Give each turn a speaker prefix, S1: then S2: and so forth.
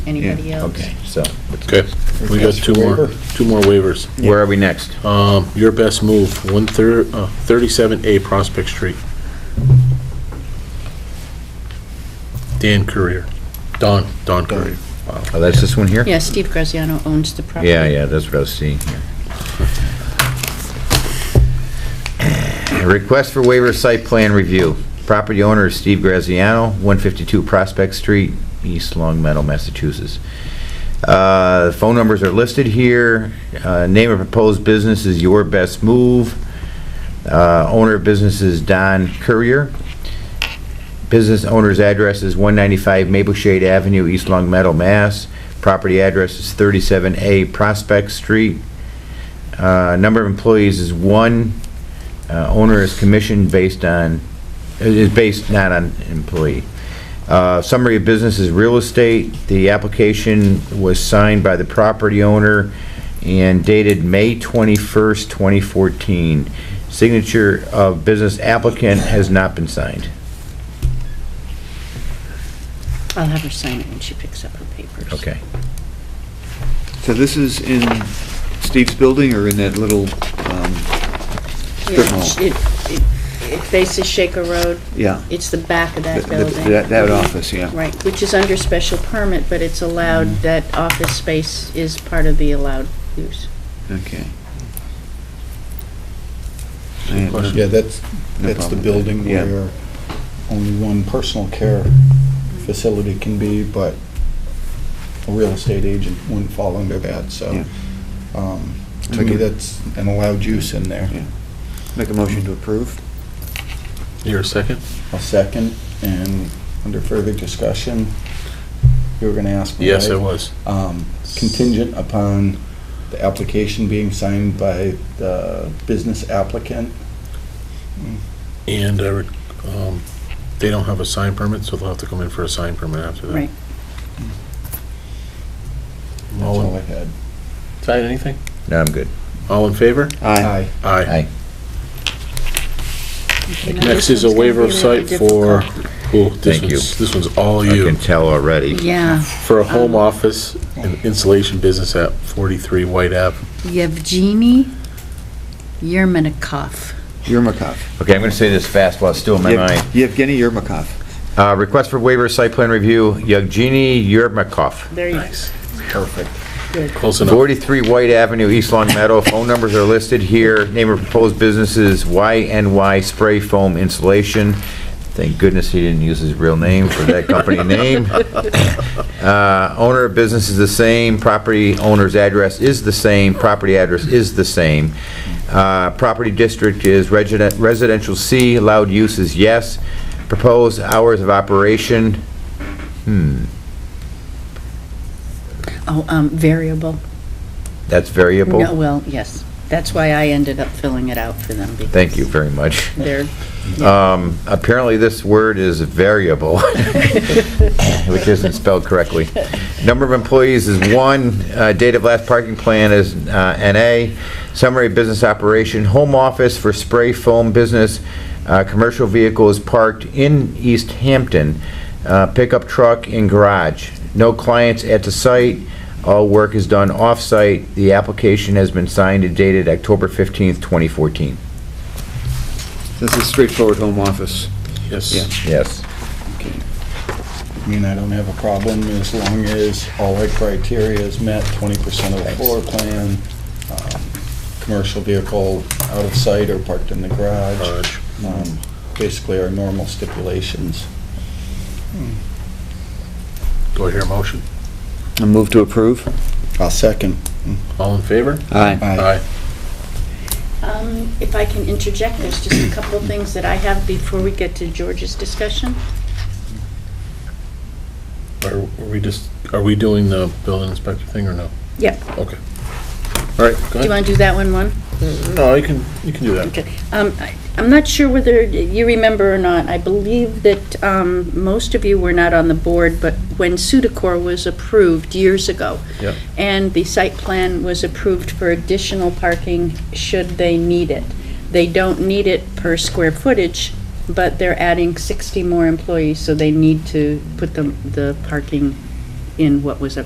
S1: Anybody else?
S2: Okay, so,
S3: Okay, we got two more, two more waivers.
S2: where are we next?
S3: Um, your best move, one thir- uh, 37A Prospect Street. Dan Courier, Don, Don Courier.
S2: Oh, that's this one here?
S1: Yeah, Steve Graziano owns the property.
S2: Yeah, yeah, that's what I was seeing here. Request for waiver of site plan review. Property owner is Steve Graziano, 152 Prospect Street, East Long Meadow, Massachusetts. Uh, Phone numbers are listed here. Uh, Name of proposed business is Your Best Move. Uh, Owner of business is Don Courier. Business owner's address is 195 Maple Shade Avenue, East Long Meadow, Mass. Property address is 37A Prospect Street. Uh, Number of employees is one. Uh, Owner is commission based on, is based not on employee. Uh, Summary of business is real estate. The application was signed by the property owner and dated May 21st, 2014. Signature of business applicant has not been signed.
S1: I'll have her sign it when she picks up her papers.
S2: Okay.
S4: So this is in Steve's building or in that little, um,
S1: Yeah,
S4: Strip mall.
S1: It it- it faces Shaker Road.
S4: yeah,
S1: It's the back of
S4: Th-
S1: that
S4: th-
S1: building.
S4: that- that office, yeah.
S1: Right, which is under special permit, but it's allowed,
S2: Mm.
S1: that office space is part of the allowed use.
S4: okay. I have no-
S5: Yeah, that's,
S4: no
S5: that's
S4: problem with
S5: the
S4: that.
S5: building
S4: Yeah.
S5: where only one personal care facility can be, but a real estate agent wouldn't fall under that, so. um, To me, that's an allowed use in there.
S4: Make a motion to approve?
S3: You're a second?
S5: A second, and under further discussion, you were gonna ask me,
S3: Yes, I
S5: right?
S3: was.
S5: Um, Contingent upon the application being signed by the business applicant.
S3: And, I re- um, they don't have a sign permit, so they'll have to come in for a sign permit after that.
S1: Right.
S5: That's
S3: All
S5: all I
S3: in,
S5: had.
S3: sign anything?
S2: No, I'm good.
S3: All in favor?
S5: Aye.
S3: Aye.
S2: Aye.
S1: Okay, now
S3: Next
S1: this
S3: is a
S1: one's gonna
S3: waiver of
S1: be really
S3: site for,
S1: difficult.
S3: oh, this
S2: Thank you.
S3: one's, this one's all
S2: I
S3: you.
S2: can tell already.
S1: Yeah,
S3: For a home
S1: Um,
S3: office and insulation business at 43 White Ave.
S1: Yevgeny Yermenikov.
S4: Yermakov.
S2: Okay, I'm going to say this fast while it's still in my mind.
S4: Yev- Yevgeny Yermakov.
S2: Uh, Request for waiver, of site plan review, Yevgeny Yermakov,
S1: There you go.
S5: Perfect.
S3: Close enough.
S2: 43 White Avenue, East Long Meadow. Phone numbers are listed here. Name of proposed businesses, YNY Spray Foam Insulation. Thank goodness he didn't use his real name for that company name. Uh, Owner of business is the same, property owner's address is the same, property address is the same. Uh, Property district is resident- residential C, allowed use is yes. Proposed hours of operation, Hmm,
S1: Oh, um, variable.
S2: that's variable.
S1: No, well, yes. That's why I ended up filling it out for them. because
S2: Thank you very much.
S1: They're
S2: Um, Apparently, this word is variable, which isn't spelled correctly. Number of employees is one, uh, date of last parking plan is uh, NA, summary of business operation, home office for spray foam business, uh, commercial vehicle is parked in East Hampton, uh, pickup truck and garage, no clients at the site, all work is done off-site, the application has been signed and dated October 15th, 2014.
S4: This is straightforward home office. Yeah.
S3: Yes.
S2: Yes.
S5: I mean, I don't have a problem as long as all the criteria is met, twenty percent of the floor plan, um, commercial vehicle out of sight or parked in the garage,
S3: Garage.
S5: um, basically our normal stipulations.
S3: Do I hear a motion?
S4: A move to approve?
S5: I'll second.
S3: All in favor?
S4: Aye.
S1: Um, If I can interject, there's just a couple of things that I have before we get to George's discussion.
S3: Are are we just, are we doing the building inspector thing or no?
S1: Yep.
S3: Okay. All
S1: Do
S3: right, go
S1: you
S3: ahead.
S1: want to do that one, one?
S3: No, you can, you can do that.
S1: Okay. Um, I- I'm not sure whether you remember or not, I believe that um, most of you were not on the board, but when Sudacor was approved years ago.
S3: Yep.
S1: And the site plan was approved for additional parking should they need it. They don't need it per square footage, but they're adding 60 more employees, so they need to put the, the parking in what was